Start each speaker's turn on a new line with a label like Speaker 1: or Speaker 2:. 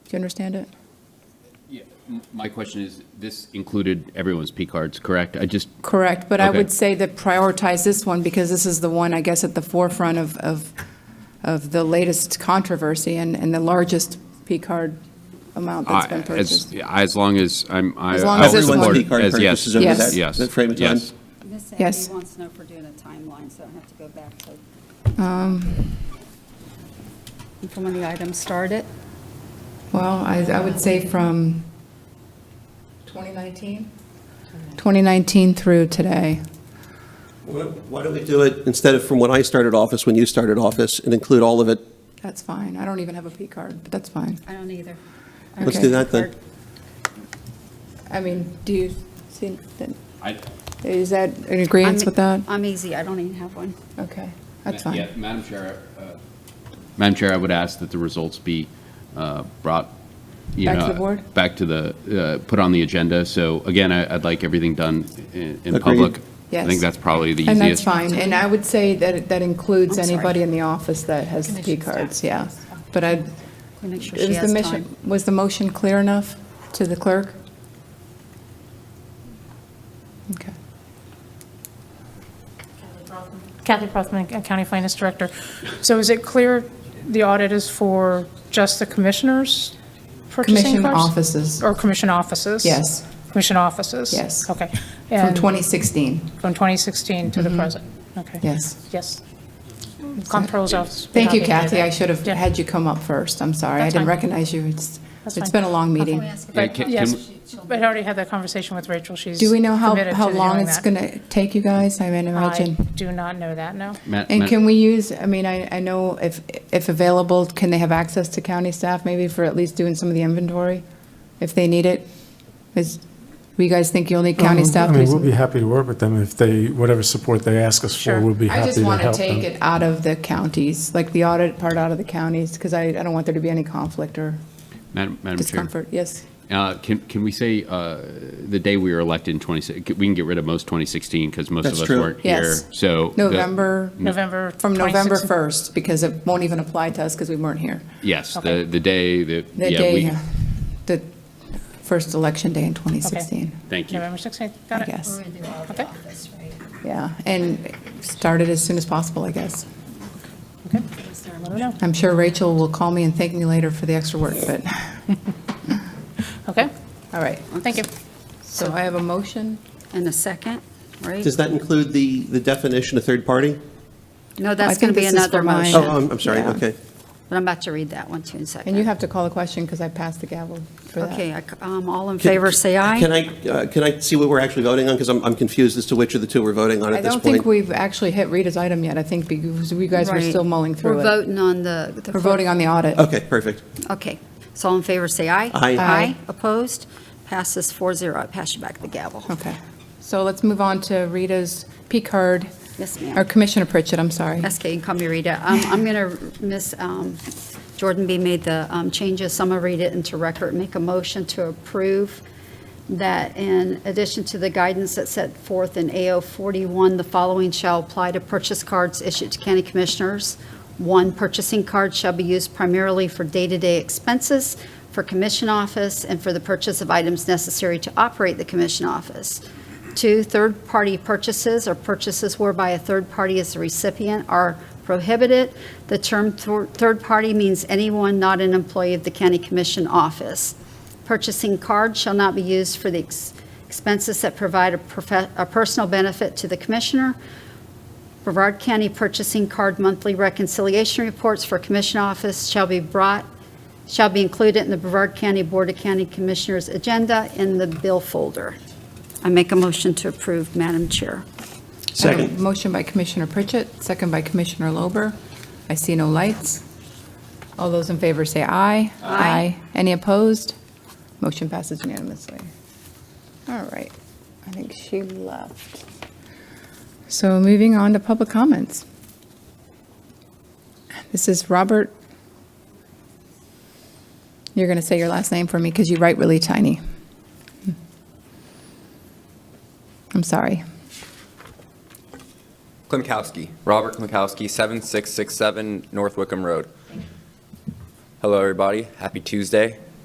Speaker 1: you understand it?
Speaker 2: Yeah, m- My question is, this included everyone's P cards, correct? I just,
Speaker 1: Correct, but I
Speaker 2: Okay.
Speaker 1: would say that prioritize this one, because this is the one, I guess, at the forefront of, of, of the latest controversy and, and the largest P card amount that's
Speaker 2: I-
Speaker 1: been
Speaker 2: as,
Speaker 1: purchased.
Speaker 2: yeah, as long as I'm. I-
Speaker 1: As long as
Speaker 2: I'll
Speaker 1: it's one-
Speaker 2: support
Speaker 1: Everyone's
Speaker 2: it
Speaker 3: P-card
Speaker 2: as yes,
Speaker 3: purchases over
Speaker 1: Yes.
Speaker 3: that-
Speaker 2: yes,
Speaker 3: that frame of time?
Speaker 2: yes.
Speaker 4: Miss
Speaker 1: Yes.
Speaker 4: Abby wants to know if we're doing a timeline, so I don't have to go back to,
Speaker 1: Um,
Speaker 4: from when the item started.
Speaker 1: Well, I, I would say from 2019? 2019 through today.
Speaker 3: Why don't we do it, instead of from when I started office, when you started office, and include all of it?
Speaker 1: That's fine. I don't even have a P card, but that's fine.
Speaker 4: I don't either.
Speaker 3: Let's
Speaker 1: Okay.
Speaker 3: do that then.
Speaker 1: I mean, do you see, that-
Speaker 2: I-
Speaker 1: is that in agreement with that?
Speaker 4: I'm easy, I don't even have one.
Speaker 1: Okay, that's
Speaker 2: Ma-
Speaker 1: fine.
Speaker 2: yeah, Madam Chair, uh, Madam Chair, I would ask that the results be uh, brought, you know.
Speaker 1: Back to the board?
Speaker 2: Back to the, uh, put on the agenda. So again, I- I'd like everything done i- in
Speaker 3: Agreed.
Speaker 2: public. I
Speaker 1: Yes.
Speaker 2: think that's probably the easiest.
Speaker 1: And that's fine, and I would say that that includes
Speaker 4: I'm sorry.
Speaker 1: anybody in the office that has P cards, yeah. But I,
Speaker 4: We Make sure she
Speaker 1: is the
Speaker 4: has
Speaker 1: mission,
Speaker 4: time.
Speaker 1: was the motion clear enough to the clerk? Okay.
Speaker 5: Kathy Prothman, uh, County Finance Director. So is it clear the audit is for just the commissioners purchasing
Speaker 1: Commission
Speaker 5: cars?
Speaker 1: offices.
Speaker 5: Or commission offices?
Speaker 1: Yes.
Speaker 5: Commission offices?
Speaker 1: Yes.
Speaker 5: Okay.
Speaker 1: From
Speaker 5: And
Speaker 1: 2016,
Speaker 5: From 2016 to the present? Okay.
Speaker 1: yes.
Speaker 5: Yes. Comptroller's office. would
Speaker 1: Thank
Speaker 5: not
Speaker 1: you,
Speaker 5: be able to do
Speaker 1: Kathy, I
Speaker 5: that.
Speaker 1: should have
Speaker 5: Yeah.
Speaker 1: had you come up first, I'm sorry, I
Speaker 5: That's
Speaker 1: didn't
Speaker 5: fine.
Speaker 1: recognize you, it's,
Speaker 5: That's
Speaker 1: it's
Speaker 5: fine.
Speaker 1: been a long meeting.
Speaker 2: Yeah, can- can
Speaker 5: Yes,
Speaker 2: we-
Speaker 5: but I already had that conversation with Rachel. She's
Speaker 1: Do we know how,
Speaker 5: committed
Speaker 1: how
Speaker 5: to
Speaker 1: long
Speaker 5: doing
Speaker 1: it's
Speaker 5: that.
Speaker 1: going to take you guys, I mean, imagine?
Speaker 5: I do not know that, no.
Speaker 2: Ma- ma-
Speaker 1: And can we use, I mean, I, I know if, if available, can they have access to county staff maybe for at least doing some of the inventory if they need it? Is, you guys think you'll need county
Speaker 6: Um,
Speaker 1: staff? to
Speaker 6: I
Speaker 1: do
Speaker 6: mean, we'll be
Speaker 1: some-
Speaker 6: happy to work with them if they, whatever support they ask us
Speaker 5: Sure.
Speaker 6: for, we'll be
Speaker 1: I
Speaker 6: happy
Speaker 1: just
Speaker 6: to
Speaker 1: want to
Speaker 6: help
Speaker 1: take
Speaker 6: them.
Speaker 1: it out of the counties, like the audit part out of the counties, because I, I don't want there to be any conflict or
Speaker 2: Madam Madam Chair.
Speaker 1: discomfort. Yes.
Speaker 2: Uh, Can, can we say uh, the day we were elected in 2016, we can get rid of most 2016 because most of
Speaker 3: That's
Speaker 2: us
Speaker 3: true.
Speaker 2: weren't here.
Speaker 1: Yes.
Speaker 2: So. the-
Speaker 1: November,
Speaker 5: November.
Speaker 1: from November
Speaker 5: 2016.
Speaker 1: 1st, because it won't even apply to us because we weren't here.
Speaker 2: Yes, the,
Speaker 5: Okay.
Speaker 2: the day that.
Speaker 1: The
Speaker 2: yeah,
Speaker 1: day,
Speaker 2: we-
Speaker 1: uh, the first election day in 2016.
Speaker 2: Thank you.
Speaker 5: November 16th, got
Speaker 1: I
Speaker 5: it?
Speaker 1: guess.
Speaker 4: We're going to do all the
Speaker 5: Okay.
Speaker 4: office, right?
Speaker 1: Yeah, and start it as soon as possible, I guess.
Speaker 5: Okay.
Speaker 4: Is there a
Speaker 5: Let me know.
Speaker 1: I'm sure Rachel will call me and thank me later for the extra work, but,
Speaker 5: Okay,
Speaker 1: all right.
Speaker 5: thank you.
Speaker 1: So I have a motion.
Speaker 4: And a second, right?
Speaker 3: Does that include the, the definition of third party?
Speaker 4: No,
Speaker 1: I
Speaker 4: that's
Speaker 1: think
Speaker 4: going to be
Speaker 1: this is
Speaker 4: another
Speaker 1: for mine.
Speaker 3: Oh,
Speaker 4: motion,
Speaker 3: I'm, I'm sorry,
Speaker 1: Yeah.
Speaker 3: okay.
Speaker 4: but I'm about to read that one too in a second.
Speaker 1: And you have to call the question because I passed the gavel for that.
Speaker 4: Okay, I c- um, all in
Speaker 3: Can-
Speaker 4: favor, say aye.
Speaker 3: Can I, uh, can I see what we're actually voting on? Because I'm, I'm confused as to which of the two we're voting on
Speaker 1: I
Speaker 3: at this
Speaker 1: don't
Speaker 3: point.
Speaker 1: think we've actually hit Rita's item yet, I think, because we guys were
Speaker 4: Right.
Speaker 1: still mulling through
Speaker 4: We're
Speaker 1: it.
Speaker 4: voting on the. the
Speaker 1: We're voting on the audit.
Speaker 3: Okay, perfect.
Speaker 4: Okay, so all in favor, say aye.
Speaker 3: Aye.
Speaker 1: Aye.
Speaker 4: Opposed? Passes 4-0. I pass you back the gavel.
Speaker 1: Okay. So let's move on to Rita's P card,
Speaker 4: Yes,
Speaker 1: or
Speaker 4: ma'am.
Speaker 1: Commissioner Pritchett, I'm sorry.
Speaker 4: Okay, you can call me Rita. Um, I'm going to, Miss um, Jordan B. made the um, changes, so I'm going to read it into record, make a motion to approve that in addition to the guidance that's set forth in AO 41, the following shall apply to purchase cards issued to county commissioners. One, purchasing card shall be used primarily for day-to-day expenses for commission office and for the purchase of items necessary to operate the commission office. Two, third-party purchases or purchases whereby a third party is the recipient are prohibited. The term thir- third party means anyone not an employee of the county commission office. Purchasing card shall not be used for the ex- expenses that provide a profe- a personal benefit to the commissioner. Brevard County Purchasing Card Monthly Reconciliation Reports for Commission Office shall be brought, shall be included in the Brevard County Board of County Commissioners Agenda in the bill folder. I make a motion to approve, Madam Chair.
Speaker 1: I have a
Speaker 3: Second.
Speaker 1: Motion by Commissioner Pritchett, second by Commissioner Lober. I see no lights. All those in favor say aye. Aye. Any opposed? Motion passes unanimously. All right, I think she left. So moving on to public comments. This is Robert. You're going to say your last name for me because you write really tiny. Hmm. I'm sorry.
Speaker 7: Klimkowski, Robert Klimkowski, 7667 North Wickham Road. Hello, everybody. Happy Tuesday.